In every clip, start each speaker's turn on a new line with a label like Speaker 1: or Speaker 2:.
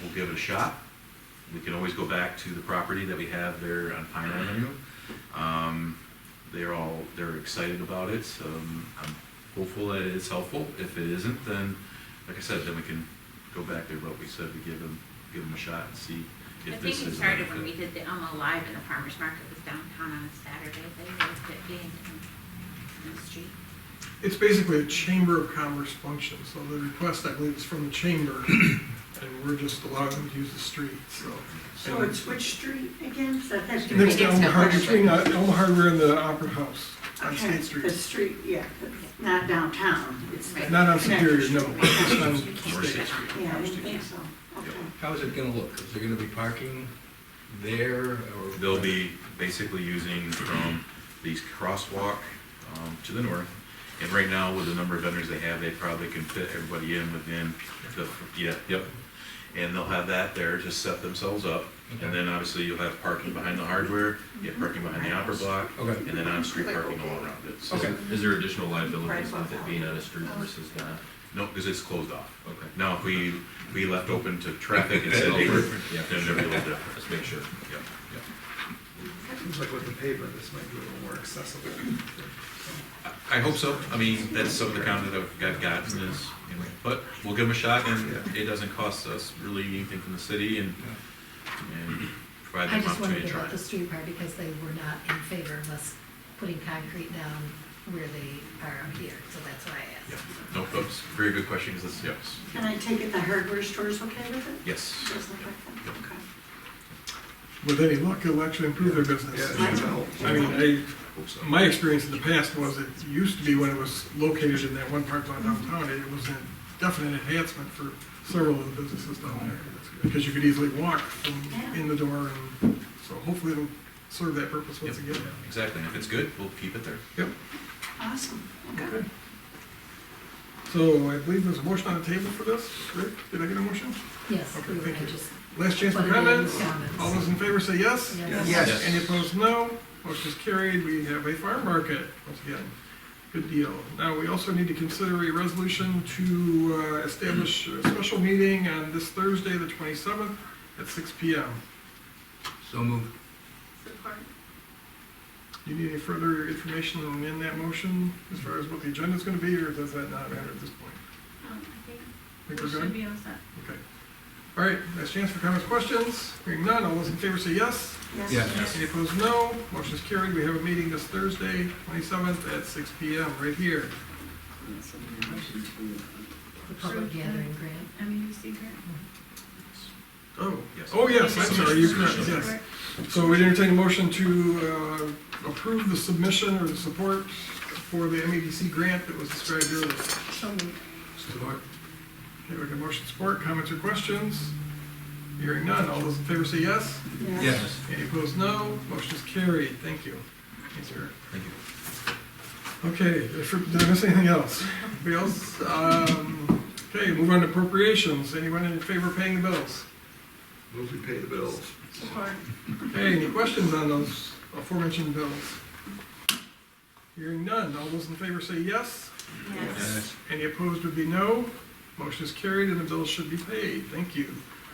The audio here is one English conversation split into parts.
Speaker 1: we'll give it a shot. We can always go back to the property that we have there on Pine Avenue. Um, They're all, they're excited about it. Um, I'm hopeful that it's helpful. If it isn't, then, like I said, then we can go back to what we said, we give them, give them a shot and see
Speaker 2: I
Speaker 1: if
Speaker 2: think
Speaker 1: this is.
Speaker 2: it
Speaker 1: a
Speaker 2: started when we
Speaker 1: benefit.
Speaker 2: did the Elmo Live in the farmer's market was downtown on a Saturday. They loved it being in- in the street.
Speaker 3: It's basically a chamber of commerce function, so the request, I believe, is from the chamber, and we're just allowing them to use the street, so.
Speaker 4: So it's which street again? So that's-
Speaker 3: Um, Next to
Speaker 2: Next
Speaker 3: Elm
Speaker 2: to
Speaker 3: Hardware,
Speaker 2: Hardware.
Speaker 3: between uh, Elm Hardware and the Opera House on
Speaker 4: Okay,
Speaker 3: State Street.
Speaker 4: The street, yeah, not downtown, it's.
Speaker 2: Right.
Speaker 3: Not on Superior,
Speaker 4: Connected
Speaker 3: no.
Speaker 4: Street.
Speaker 3: It's on
Speaker 2: You can't
Speaker 1: Or
Speaker 3: State.
Speaker 2: sit
Speaker 1: Sixth
Speaker 2: on it.
Speaker 4: Yeah, I didn't think so, okay.
Speaker 5: How is it gonna look? Is there gonna be parking there or?
Speaker 1: They'll be basically using from these crosswalk um, to the north. And right now, with the number of vendors they have, they probably can fit everybody in within the, yeah, yep. And they'll have that there to set themselves up. And then obviously you'll have parking behind the hardware, you have parking behind the opera block,
Speaker 5: Okay,
Speaker 1: and then on-street parking all around it. So-
Speaker 5: Okay.
Speaker 6: Is there additional liabilities with it being on a street versus not?
Speaker 1: No, because it's closed off.
Speaker 6: Okay.
Speaker 1: Now, if we, we left open to traffic and said,
Speaker 6: Oh,
Speaker 1: hey, we're-
Speaker 6: different, yeah.
Speaker 1: then it'd be a little different.
Speaker 6: Let's make sure.
Speaker 1: Yeah, yeah.
Speaker 7: Seems like with the pavement, this might be a little more accessible.
Speaker 1: I hope so. I mean, that's some of the comment that I've- I've gotten is, you know, but we'll give them a shot and it doesn't cost us really anything from the city and, and provide
Speaker 8: I
Speaker 1: them
Speaker 8: just
Speaker 1: opportunity
Speaker 8: wanted to
Speaker 1: to
Speaker 8: get
Speaker 1: try.
Speaker 8: out the street part because they were not in favor of us putting concrete down where they are up here, so that's why I
Speaker 1: Yeah,
Speaker 8: asked.
Speaker 1: no, that's a very good question, 'cause that's, yes,
Speaker 4: Can I take it the hardware store's okay with it?
Speaker 1: yes.
Speaker 4: Just like that, okay.
Speaker 3: With any luck, it'll actually improve their business.
Speaker 4: Yeah.
Speaker 3: I mean,
Speaker 1: Hope so.
Speaker 3: I, my experience in the past was it used to be when it was located in that one park lot downtown, it was a definite enhancement for several of the businesses down there. Because you could easily walk from in the door and, so hopefully it'll serve that purpose once
Speaker 1: Yep,
Speaker 3: again.
Speaker 1: Exactly, and if it's good, we'll keep it there.
Speaker 3: Yep.
Speaker 4: Awesome, okay.
Speaker 3: Okay. So I believe there's a motion on the table for this. Rick, did I get a motion?
Speaker 8: Yes,
Speaker 3: Okay,
Speaker 8: we were,
Speaker 3: thank
Speaker 8: I
Speaker 3: you.
Speaker 8: just,
Speaker 3: Last chance for
Speaker 8: Put it in
Speaker 3: comments.
Speaker 8: comments.
Speaker 3: All those in favor say yes.
Speaker 8: Yes.
Speaker 7: Yes.
Speaker 3: Any opposed, no. Motion is carried. We have a farm market once again. Good deal. Now, we also need to consider a resolution to uh, establish a special meeting on this Thursday, the 27th, at 6 PM.
Speaker 5: so moved.
Speaker 2: Support.
Speaker 3: Do you need any further information in that motion as far as what the agenda's going to be, or does that not matter at this point?
Speaker 2: Um, I think
Speaker 3: Think
Speaker 2: we
Speaker 3: we're
Speaker 2: should
Speaker 3: good?
Speaker 2: be all set.
Speaker 3: Okay. All right, last chance for comments, questions. Hearing none, all those in favor say yes.
Speaker 5: Yes.
Speaker 3: Any opposed, no. Motion is carried. We have a meeting this Thursday, 27th, at 6 PM, right here.
Speaker 8: the public gathering grant,
Speaker 2: I mean, you see Grant?
Speaker 3: Oh,
Speaker 1: Yes.
Speaker 3: oh, yes, I'm sorry, you're correct, yes. So we entertain a motion to uh, approve the submission or the support for the MEDC grant that was described earlier.
Speaker 5: Support?
Speaker 3: Okay, we got motion support, comments or questions? Hearing none, all those in favor say yes.
Speaker 5: Yes.
Speaker 3: Any opposed, no. Motion is carried, thank you. Thanks, Eric.
Speaker 1: Thank you.
Speaker 3: Okay, if- did I miss anything else? Anybody else? Um, Okay, move on to appropriations. Anyone in favor of paying the bills?
Speaker 7: Move we pay the bills.
Speaker 2: Support.
Speaker 3: Okay, any questions on those aforementioned bills? Hearing none. All those in favor say yes.
Speaker 2: Yes.
Speaker 3: Any opposed would be no. Motion is carried and the bills should be paid. Thank you.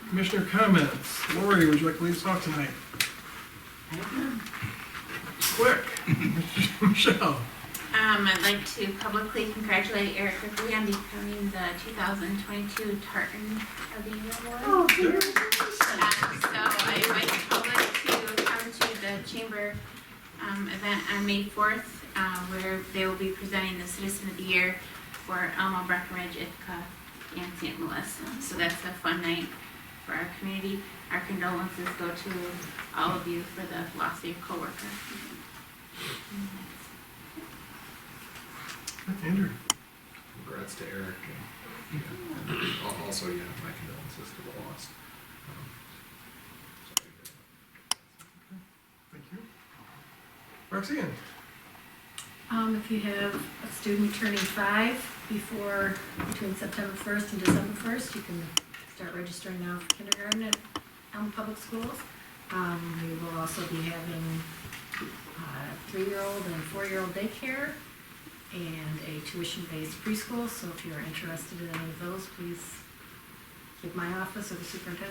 Speaker 3: Commissioner comments. Lori, would you like to lead us off tonight?
Speaker 4: I don't know.
Speaker 3: Quick. Michelle.
Speaker 2: Um, I'd like to publicly congratulate Eric Ripley on becoming the 2022 Tartan of the Year Award.
Speaker 4: Oh, congratulations.
Speaker 2: Um, So I invite the public to come to the Chamber um, event on May 4th, uh, where they will be presenting the Citizen of the Year for Elmo, Breckenridge, Ithaca, and St. Louis. So that's a fun night for our community. Our condolences go to all of you for the loss of your coworker.
Speaker 3: Andrew.
Speaker 7: Congrats to Eric and, yeah, Al- also, yeah, my condolences to the lost. Um, sorry to hear that.
Speaker 3: Thank you. Roxanne.
Speaker 8: Um, if you have a student turning five before, between September first and December first, you can start registering now for kindergarten at Elm Public Schools. Um, we will also be having, uh, three-year-old and four-year-old daycare and a tuition-based preschool, so if you're interested in any of those, please give my office or the superintendent